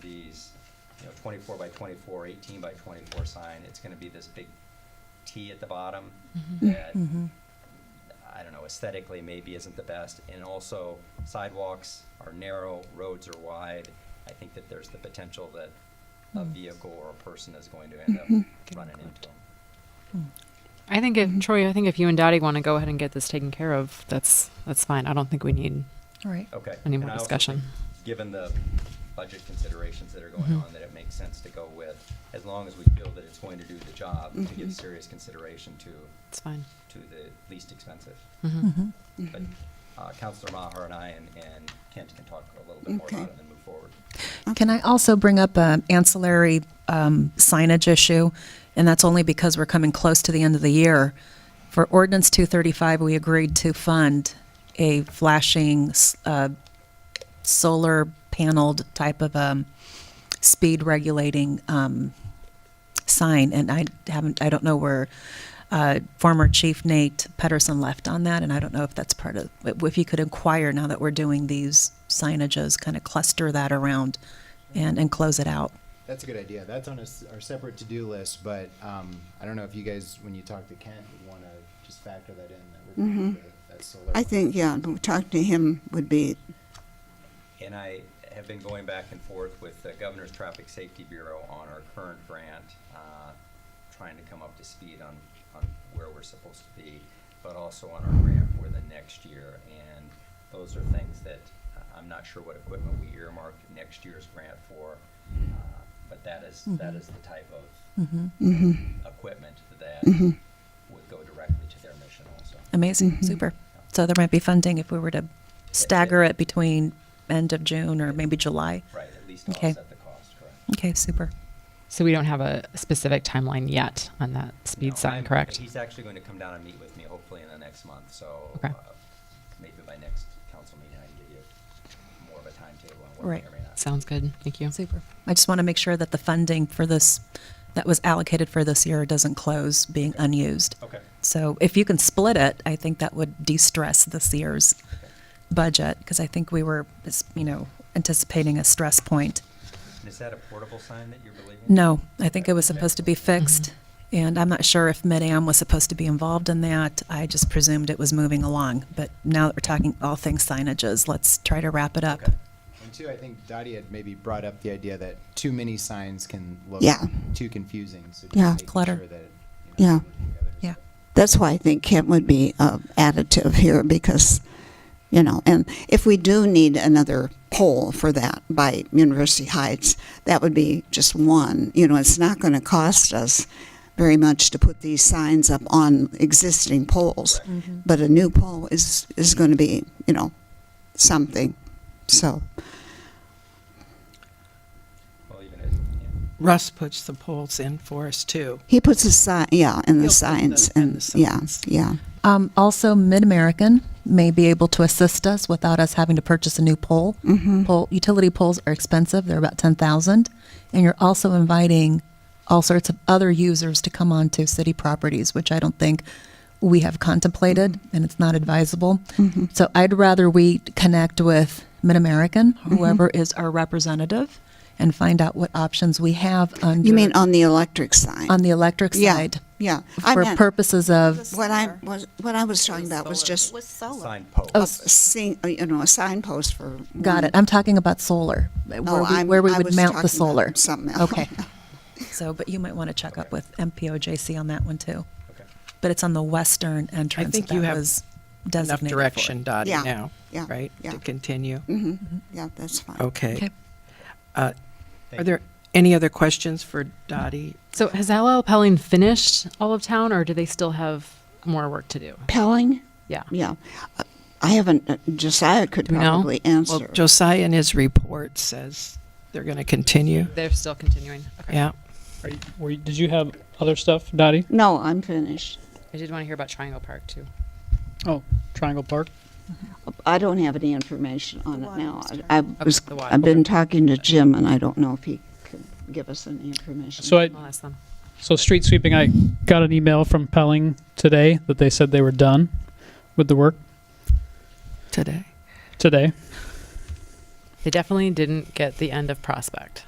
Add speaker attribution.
Speaker 1: these, you know, 24 by 24, 18 by 24 sign, it's going to be this big T at the bottom that,
Speaker 2: Mm-hmm.
Speaker 1: I don't know, aesthetically maybe isn't the best. And also sidewalks are narrow, roads are wide. I think that there's the potential that a vehicle or a person is going to end up running into them.
Speaker 2: Mm-hmm.
Speaker 3: I think if Troy, I think if you and Dottie want to go ahead and get this taken care of, that's that's fine. I don't think we need
Speaker 2: All right.
Speaker 1: Okay.
Speaker 3: any
Speaker 1: And
Speaker 3: more
Speaker 1: I also
Speaker 3: discussion.
Speaker 1: think, Given the budget considerations that are going
Speaker 3: Mm-hmm.
Speaker 1: on, that it makes sense to go with, as long as we feel that it's going to do the job, to give serious consideration to,
Speaker 3: It's fine.
Speaker 1: to the least expensive.
Speaker 2: Mhm.
Speaker 1: But uh, Counselor Maher and I and and Kent can talk a little bit more
Speaker 4: Okay.
Speaker 1: about it and then move forward.
Speaker 2: Can I also bring up an ancillary um, signage issue? And that's only because we're coming close to the end of the year. For ordinance 235, we agreed to fund a flashing s- uh, solar paneled type of um, speed regulating um, sign. And I haven't, I don't know where uh, former Chief Nate Pedersen left on that. And I don't know if that's part of, if you could inquire now that we're doing these signages, kind of cluster that around and, and close it out.
Speaker 5: That's a good idea. That's on a s our separate to-do list, but um, I don't know if you guys, when you talk to Kent, would want to just factor that in. That we're gonna do the- that solar.
Speaker 4: Mm-hmm. I think, yeah, but talking to him would be,
Speaker 1: And I have been going back and forth with the Governor's Traffic Safety Bureau on our current grant, uh, trying to come up to speed on, on where we're supposed to be, but also on our grant for the next year. And those are things that, uh, I'm not sure what equipment we earmarked next year's grant for, uh, but that is, that is the type of
Speaker 2: Mm-hmm.
Speaker 4: mm-hmm,
Speaker 1: equipment that would go directly to their mission also.
Speaker 2: Amazing, super. So there might be funding if we were to stagger it between end of June or maybe July.
Speaker 1: Right, at least
Speaker 2: Okay.
Speaker 1: offset the cost, correct?
Speaker 2: Okay, super.
Speaker 3: So we don't have a specific timeline yet on that speed
Speaker 1: No,
Speaker 3: sign,
Speaker 1: I'm-
Speaker 3: correct?
Speaker 1: He's actually going to come down and meet with me hopefully in the next month, so
Speaker 3: Okay.
Speaker 1: uh, maybe by next council meeting, I can give you more of a timetable on what
Speaker 2: Right.
Speaker 1: may or may not.
Speaker 3: Sounds good. Thank you.
Speaker 2: Super. I just want to make sure that the funding for this, that was allocated for this year, doesn't close being unused.
Speaker 1: Okay.
Speaker 2: So if you can split it, I think that would de-stress this year's budget, because I think we were, you know, anticipating a stress point.
Speaker 1: And is that a portable sign that you're believing?
Speaker 2: No, I think it was supposed to be fixed, and I'm not sure if Mid-Am was supposed to be involved in that. I just presumed it was moving along, but now that we're talking all things signages, let's try to wrap it up.
Speaker 1: Okay.
Speaker 5: And two, I think Dottie had maybe brought up the idea that too many signs can look
Speaker 4: Yeah.
Speaker 5: too confusing. So just
Speaker 4: Yeah.
Speaker 5: making
Speaker 2: Clutter.
Speaker 5: Sure that, it, you know,
Speaker 4: yeah.
Speaker 5: together.
Speaker 2: Yeah,
Speaker 4: That's why I think Kent would be uh, additive here because, you know, and if we do need another poll for that by University Heights, that would be just one. You know, it's not going to cost us very much to put these signs up on existing poles,
Speaker 6: Mm-hmm.
Speaker 4: but a new pole is is going to be, you know, something. So
Speaker 1: Well, even if, yeah.
Speaker 6: Russ puts the poles in for us too.
Speaker 4: he puts a sign, yeah, and
Speaker 6: He'll
Speaker 4: the
Speaker 6: put
Speaker 4: signs,
Speaker 6: the- and
Speaker 4: and,
Speaker 6: the
Speaker 4: yeah,
Speaker 6: signs.
Speaker 4: yeah,
Speaker 2: Um, also, Mid-American may be able to assist us without us having to purchase a new pole.
Speaker 4: Mm-hmm.
Speaker 2: Pole, utility poles are expensive, they're about ten thousand, and you're also inviting all sorts of other users to come onto city properties, which I don't think we have contemplated,
Speaker 4: Mm-hmm.
Speaker 2: and it's not advisable. So I'd rather we connect with Mid-American,
Speaker 4: Mm-hmm.
Speaker 2: whoever is our representative, and find out what options we have under.
Speaker 4: You mean on the electric sign?
Speaker 2: On the electric
Speaker 4: yeah,
Speaker 2: side,
Speaker 4: yeah. I
Speaker 2: for
Speaker 4: meant-
Speaker 2: purposes of,
Speaker 4: What I was, what I was talking about was just
Speaker 7: was solar.
Speaker 1: Sign post.
Speaker 4: a sing, uh, you know, a signpost for.
Speaker 2: Oh. Got it. I'm talking about solar, where
Speaker 4: Oh,
Speaker 2: we,
Speaker 4: I'm-
Speaker 2: where we
Speaker 4: I
Speaker 2: would
Speaker 4: was
Speaker 2: mount the
Speaker 4: talking
Speaker 2: solar.
Speaker 4: about something else.
Speaker 2: Okay. So, but you might want to check up with MPOJC on that one too.
Speaker 1: Okay.
Speaker 2: But it's on the western entrance.
Speaker 6: think
Speaker 2: that
Speaker 6: you have
Speaker 2: was
Speaker 6: Enough
Speaker 2: designated for.
Speaker 6: direction, Dottie,
Speaker 4: Yeah,
Speaker 6: now,
Speaker 4: yeah,
Speaker 6: right?
Speaker 4: yeah.
Speaker 6: To continue?
Speaker 4: Mhm.
Speaker 2: Mm-hmm.
Speaker 4: Yeah, that's fine.
Speaker 6: Okay.
Speaker 2: Okay.
Speaker 6: Uh,
Speaker 1: Thank
Speaker 6: Are
Speaker 1: you.
Speaker 6: there any other questions for Dottie?
Speaker 3: So has LL Pelling finished all of town, or do they still have more work to do?
Speaker 4: Pelling,
Speaker 3: Yeah.
Speaker 4: yeah. Uh, I haven't, uh, Josiah could
Speaker 3: Do we know?
Speaker 4: probably
Speaker 6: Well,
Speaker 4: answer.
Speaker 6: Josiah in his report says they're going to continue.
Speaker 3: They're still continuing. Okay.
Speaker 6: Yeah.
Speaker 8: Are you, were you, did you have other stuff, Dottie?
Speaker 4: No, I'm finished.
Speaker 3: I did want to hear about Triangle Park too.
Speaker 8: Oh, Triangle Park?
Speaker 4: I don't have any information on it now. I I was,
Speaker 3: the water.
Speaker 4: I've been talking to Jim and I don't know if he could give us any information.
Speaker 8: So I,
Speaker 3: I'll ask them.
Speaker 8: so street sweeping, I got an email from Pelling today that they said they were done with the work
Speaker 6: Today.
Speaker 8: today.
Speaker 3: They definitely didn't get the end of Prospect.